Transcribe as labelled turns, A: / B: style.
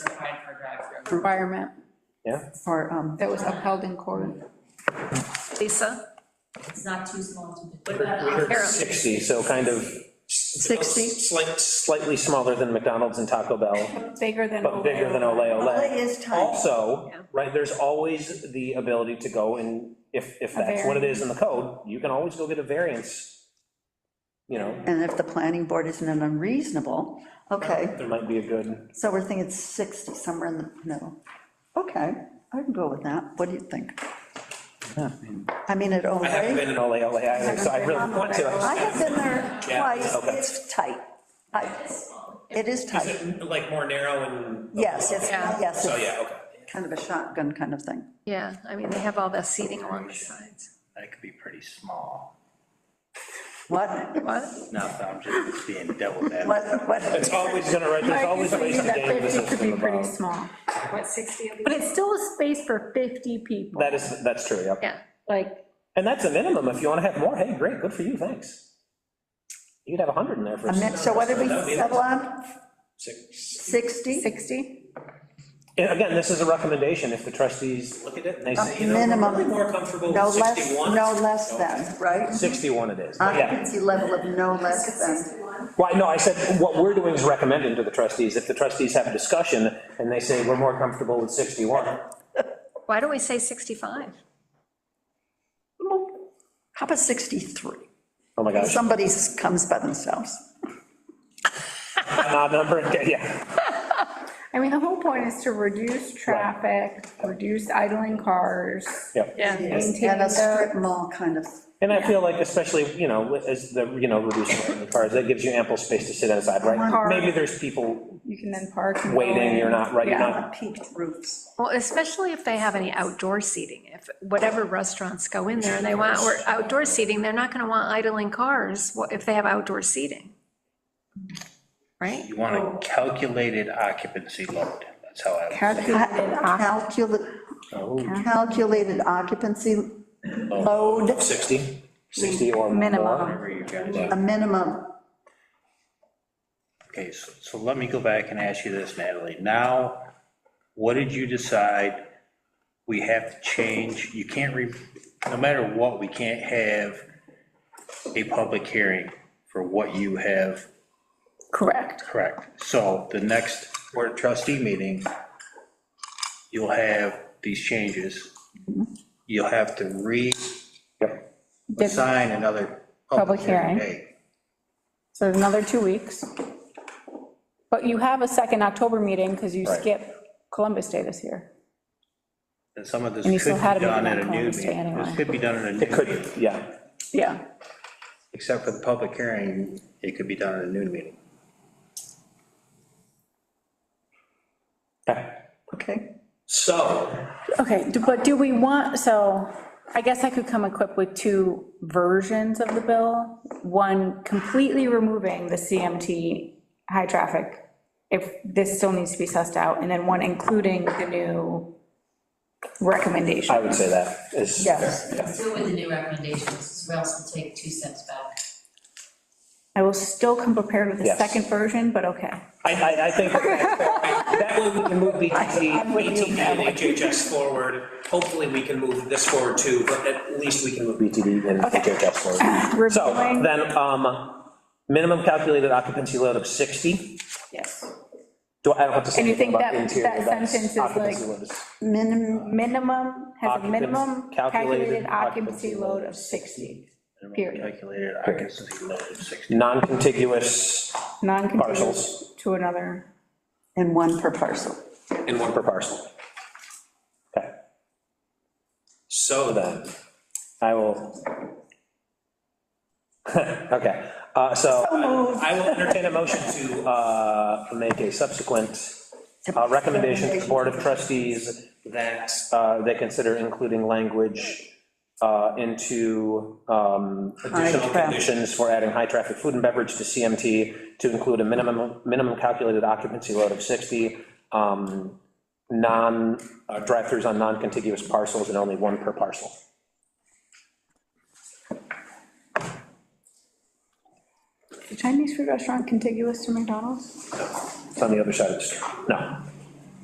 A: requirement
B: Yeah,
A: for, um, that was upheld in court.
C: Lisa?
D: It's not too small to.
B: we
A: uh,
B: heard 60, so kind of.
A: 60?
B: Slight, slightly smaller than McDonald's and Taco Bell,
A: Bigger than.
B: but bigger than Ole
E: Ole
B: Ole.
E: is tiny.
B: Also, right, there's always the ability to go and, if, if
A: A
B: that's what it is in the code, you can always go get a variance. You know,
E: And if the planning board isn't unreasonable, okay,
B: there might be a good,
E: so we're thinking 60, somewhere in the middle. Okay, I can go with that. What do you think? I mean, at Ole.
B: I haven't been in Ole Ole either, so I really want to.
E: I have been there
B: Yeah,
E: twice,
B: okay.
E: it's tight. I- It is tight,
B: Like more narrow and.
E: yes, it's,
C: Yeah.
E: yes,
B: So,
E: it's
B: yeah, okay.
E: kind of a shotgun kind of thing.
C: Yeah, I mean, they have all that seating along the sides.
F: That could be pretty small.
E: What,
C: What?
F: No, I'm just being devil advocate.
E: what, what,
B: It's always gonna, right, there's always ways to game
A: That 50
B: the
A: could
B: system
A: be pretty
B: about.
A: small.
D: What, 60 of
G: But it's still a space for 50 people,
B: That is, that's true, yeah.
C: Yeah,
G: like,
B: And that's a minimum, if you want to have more, hey, great, good for you, thanks. You could have 100 in there for.
E: a min- so what did we
B: That'd be
E: settle on?
B: six.
E: 60?
A: 60?
B: And Again, this is a recommendation, if the trustees look at it and they say, you know. we're
E: Minimum.
B: really More comfortable
E: No
B: with
E: less,
B: 61.
E: no less than, Uh, right?
B: 61 it is, but yeah.
E: Occupancy level of no less than.
B: Why, no, I said, what we're doing is recommending to the trustees, if the trustees have a discussion and they say, we're more comfortable with 61.
C: why don't we say 65?
E: How about 63?
B: Oh my gosh,
E: Somebody comes by themselves.
B: an odd number, okay, yeah.
A: I mean, the whole point is to reduce traffic, reduce idling cars.
B: Yep.
C: Yeah.
A: Maintain
E: And a strip
A: the,
E: mall kind of,
B: And I feel like especially, you know, with- as the, you know, reducing the cars, that gives you ample space to sit outside, right?
A: Car.
B: Maybe there's people
A: you can then park. and go
B: waiting,
A: in.
B: you're not, right, you're
A: Yeah.
B: not
E: uh, peaked roofs.
C: Well, especially if they have any outdoor seating, if whatever restaurants go in there and they want or outdoor seating, they're not gonna want idling cars wha- if they have outdoor seating. Right?
F: You want a calculated occupancy load, that's how I. Oh,
A: Calculated occupancy.
E: Calculated, calculated occupancy
B: Oh.
E: load,
B: 60, 60 or more.
A: Minimum.
F: Whatever you guys-
E: a minimum,
F: Okay, so, so let me go back and ask you this, Natalie. Now, what did you decide we have to change? You can't re, no matter what, we can't have a public hearing for what you have
A: Correct.
F: Correct. So the next board of trustee meeting, you'll have these changes. You'll have to re-assign
B: Yep.
F: another
A: Public
F: public
A: hearing.
F: hearing date.
G: so another two weeks. But you have a second October meeting because you
B: Right.
G: skipped Columbus Day this year.
F: And some of this
G: And you still
F: could be
G: had a meeting
F: done at
G: on
F: a new
G: Columbus Day
F: meeting.
G: anyway.
F: This could be done at a new
B: It could,
F: meeting,
B: yeah.
G: Yeah.
F: except for the public hearing, it could be done at a noon meeting.
B: Okay.
E: okay?
B: So,
G: Okay, d- but do we want, so I guess I could come equipped with two versions of the bill. One completely removing the CMT high traffic, if this still needs to be sussed out, and then one including the new recommendation.
B: I would say that is.
E: Yes.
D: Do it with the new recommendations, or else we'll take two steps back.
G: I will still come prepared with the
B: Yes.
G: second version, but okay.
B: I, I, I think that way we can move BTT, BTD and HHS forward. Hopefully, we can move this forward too, but at least we can move BTD and HHS forward. So
G: Reviewing.
B: then, um, minimum calculated occupancy load of 60.
G: Yes.
B: Do, I don't have to say
G: And you
B: anything
G: think
B: about
G: that-
B: interior.
G: that
B: that's
G: sentence is
B: occupancy
G: like-
B: load is-
E: Minimum,
G: Minimum, has a
B: Occupants-
G: minimum
B: calculated
G: calculated
B: occupancy
G: occupancy load
B: load
G: of 60, Period.
F: Calculated occupancy load of 60.
B: Non-contiguous
G: non-contiguous
B: Parcels.
G: to another.
E: and one per parcel.
B: in one per parcel. Okay. So then, I will. Okay, uh, so I will entertain a motion to uh, make a subsequent uh, recommendation to the Board of Trustees that uh, they consider including language uh, into um, additional
E: traffic.
B: conditions for adding high-traffic food and beverage to CMT to include a minimum, minimum calculated occupancy load of 60, um, non, uh, drive-throughs on non-contiguous parcels and only one per parcel.
G: Is Chinese food restaurant contiguous to McDonald's?
B: It's on the other side of the street. No.